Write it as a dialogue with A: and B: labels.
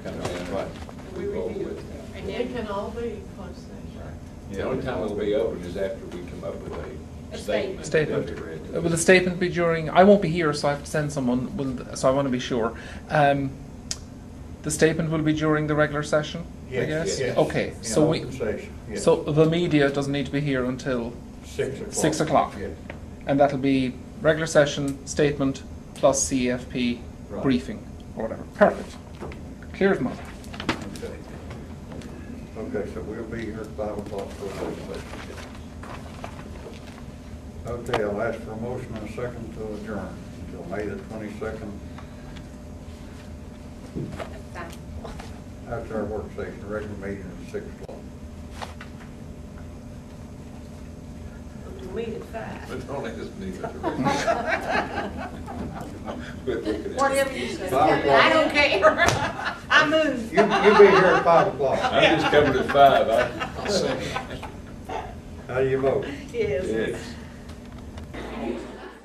A: involved
B: review.
A: with now.
B: And
C: It can
B: then
C: all be closed session.
A: The only time it'll be open is after we come up with
B: A
A: a statement.
D: Statement.
A: that we read.
D: Uh, Will the statement be during? I won't be here, so I have to send someone. Will th- so I want to be sure. Um, the statement will be during the regular session. I
E: Yes,
D: guess.
E: yes.
D: Okay.
E: In
D: So we.
E: open session, yes.
D: So the media doesn't need to be here until
E: Six o'clock.
D: six o'clock,
E: Yes.
D: and that'll be regular session statement plus CFP
E: Right.
D: briefing or whatever. Perfect. Clear as mud.
E: Okay, Okay. so we'll be here at five o'clock for the open session. Okay, I'll ask for a motion and a second to adjourn until May the twenty-second after our work session, regular meeting at six o'clock.
B: we'll meet at five.
A: But don't ask me what to read. Quit looking at me.
C: Whatever you say.
E: Five o'clock.
B: I don't care. I move.
E: You, you'll be here at five o'clock.
A: I'm just coming at five, I second.
E: How do you vote?
B: Yes.
A: Yes.